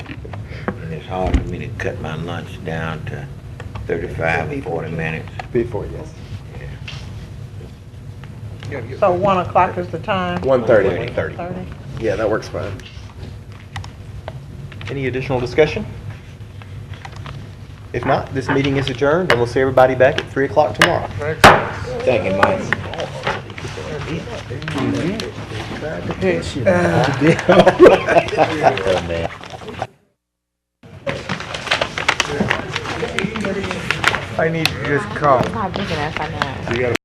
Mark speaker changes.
Speaker 1: hard for me to cut my lunch down to 35 or 40 minutes.
Speaker 2: Before, yes.
Speaker 3: So 1 o'clock is the time?
Speaker 2: One thirty.
Speaker 1: 1:30.
Speaker 3: 30?
Speaker 2: Yeah, that works fine.
Speaker 4: Any additional discussion? If not, this meeting is adjourned, and we'll see everybody back at 3 o'clock tomorrow.
Speaker 1: Thank you, Mike.
Speaker 5: I'm not big enough, I know.